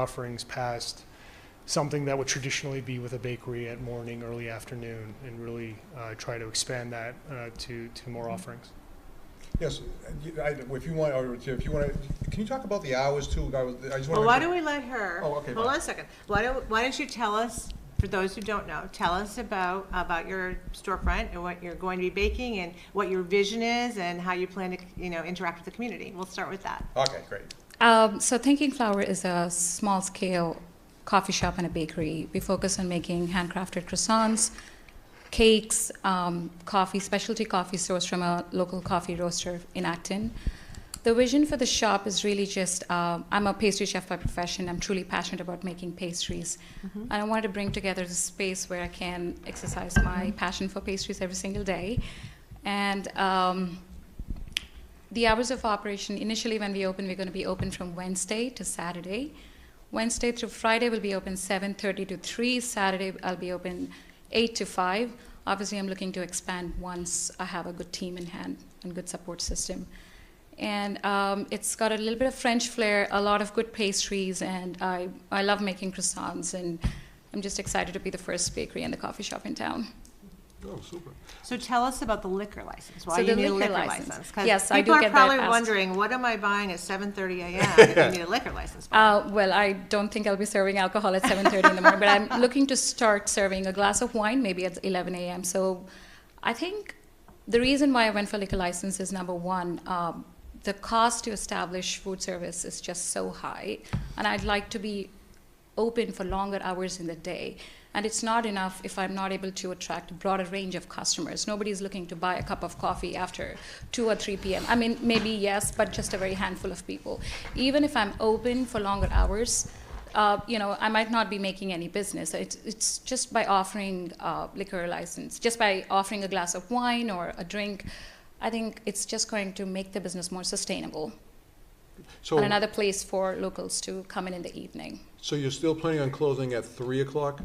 offerings past something that would traditionally be with a bakery at morning, early afternoon, and really uh, try to expand that uh, to, to more offerings. Yes, and you- I- if you want, or if you want to, can you talk about the hours too? I was- I just want to. Well, why don't we let her, Oh, okay, hold fine. on a second, why don't, why don't you tell us, for those who don't know, tell us about, about your storefront and what you're going to be baking and what your vision is and how you plan to, you know, interact with the community, we'll start with that. Okay, great. Um, so, Thinking Flower is a small scale coffee shop and a bakery. We focus on making handcrafted croissants, cakes, um, coffee, specialty coffee sourced from a local coffee roaster in Acton. The vision for the shop is really just uh, I'm a pastry chef by profession. I'm truly passionate about making pastries. And I wanted to bring together the space where I can exercise my passion for pastries every single day. And um, the hours of operation initially, when we open, we're going to be open from Wednesday to Saturday. Wednesday through Friday will be open 7:30 to 3. Saturday I'll be open 8 to 5. Obviously, I'm looking to expand once I have a good team in hand and good support system. And um, it's got a little bit of French flair, a lot of good pastries, and I, I love making croissants. And I'm just excited to be the first bakery and the coffee shop in town. Oh, super. So tell us about the liquor license, why So you the need a liquor liquor license. license. 'cause Yes, I do get that People are probably asked. wondering, what am I buying at seven thirty AM if I need a liquor license? for?" Uh, well, I don't think I'll be serving alcohol at 7:30 in the morning, but I'm looking to start serving a glass of wine maybe at 11 a.m. So, I think the reason why I went for liquor license is number one, um, the cost to establish food service is just so high, and I'd like to be open for longer hours in the day. And it's not enough if I'm not able to attract a broader range of customers. Nobody's looking to buy a cup of coffee after 2 or 3 p.m. I mean, maybe yes, but just a very handful of people. Even if I'm open for longer hours, uh, you know, I might not be making any business. It's, it's just by offering uh, liquor license, just by offering a glass of wine or a drink, I think it's just going to make the business more sustainable So, and another place for locals to come in in the evening. so you're still planning on closing at three o'clock?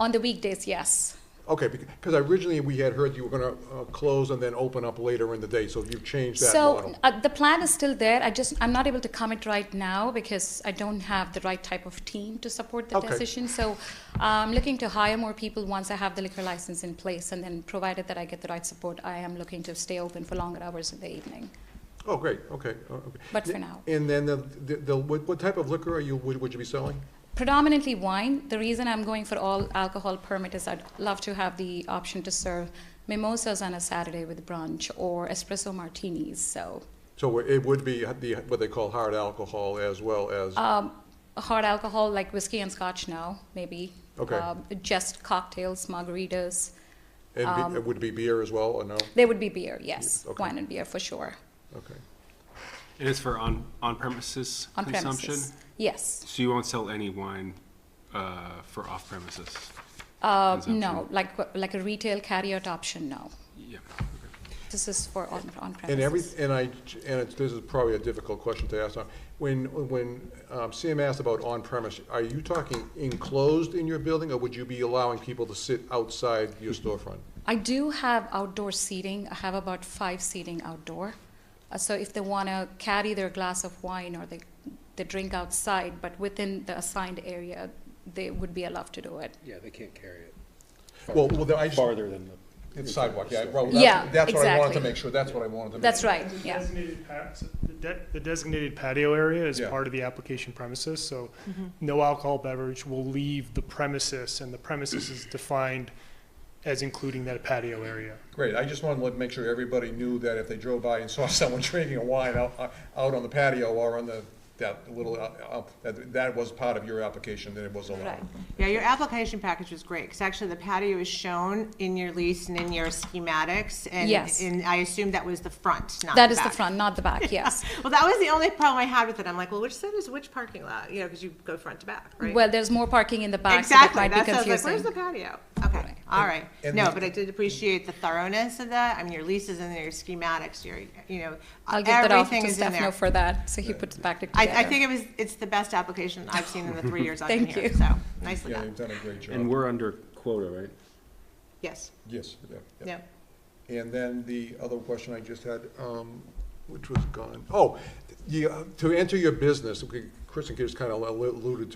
On the weekdays, yes. Okay, because originally we had heard you were gonna, uh, close and then open up later in the day, so you've changed that So model. uh, the plan is still there. I just I'm not able to commit right now because I don't have the right type of team to support the Okay. decision. So I'm looking to hire more people once I have the liquor license in place, and then provided that I get the right support, I am looking to stay open for longer hours in the evening. Oh, great, okay, uh, okay. But for now. And then the, the- the, what, what type of liquor are you, would, would you be selling? Predominantly wine. The reason I'm going for all alcohol permit is I'd love to have the option to serve mimosas on a Saturday with brunch or espresso martinis. So So it would be the, what they call hard alcohol as well as, Um, hard alcohol like whiskey and scotch now, maybe. Okay. Um, just cocktails, margaritas. um, and be- it would be beer as well, or no? There would be beer, yes. Yeah, okay. Wine and beer for sure. Okay. It is for on, on premises On consumption. premises. Yes. So you won't sell any wine uh, for off premises. Uh, Consumption. no, like like a retail carryout option, no. Yeah. This is for on, on premises. And every, and I, and it's, this is probably a difficult question to ask now. When, when um, Sam asked about on-premise, are you talking enclosed in your building, or would you be allowing people to sit outside your storefront? I do have outdoor seating. I have about five seating outdoor. Uh, so if they want to carry their glass of wine or they, they drink outside, but within the assigned area, they would be allowed to do it. Yeah, they can't carry it. Well, well, then I just- Farther than the. It's sidewalk, yeah, well, Yeah, that's, that's what I wanted to exactly. make sure, that's what I wanted to make. That's right, The yeah. designated pat- the de- The designated patio area is Yeah. part of the application premises, so Mm-hmm. no alcohol beverage will leave the premises, and the premises is defined as including that patio area. Great, I just wanted to make sure everybody knew that if they drove by and saw someone drinking a wine out, uh, out on the patio or on the, that little, uh, uh, that, that was part of your application, that it was allowed. Right. Yeah, your application package was great, because actually the patio is shown in your lease and in your schematics, and, Yes. and I assume that was the front, not the That is the back. front, not the back, yes. Well, that was the only problem I had with it. I'm like, well, which side is which parking lot? You know, because you go front to back, right? Well, there's more parking in the back, so that exactly. might That's be what I was like, where's the confusing. patio? Okay, all right. and No, the- but I did appreciate the thoroughness of that. I mean, your leases and your schematics, your, you know, I'll give that off everything to is in Stefano there. for that, so he puts back together. I, I think it was, it's the best application I've seen in the three years I've been Thank here, you. so nicely Yeah, done. you've done a great And job, we're under quota, right? Yes, yes, yeah, yeah. no. And then the other question I just had, um, which was gone, oh, you, to enter your business, okay, Kristen just kind of alluded to